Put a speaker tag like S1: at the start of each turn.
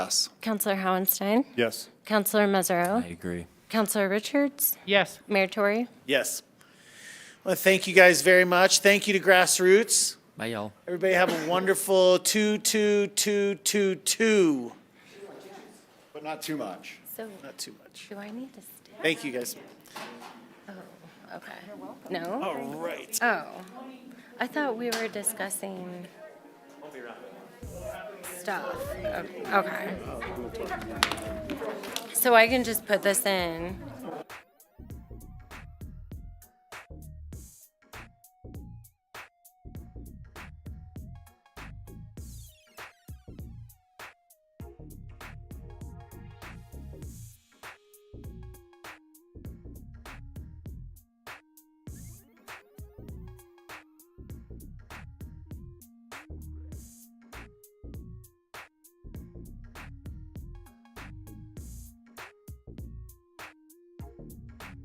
S1: Yes.
S2: Counselor Howenstein,
S3: Yes.
S2: Counselor Mazzaro,
S1: agree.
S2: Counselor Richards,
S4: Yes.
S2: Mayor Tory.
S5: Yes. Well, thank you guys very much. Thank you to Grassroots.
S1: Bye, y'all.
S5: Everybody have a wonderful two, two, two, two, two.
S3: But not too much.
S2: So
S5: Not too much.
S2: do I need to stay?
S5: Thank you guys.
S2: Okay. No?
S5: All right.
S2: Oh. I thought we were discussing stuff. Oh, Okay. So I can just put this in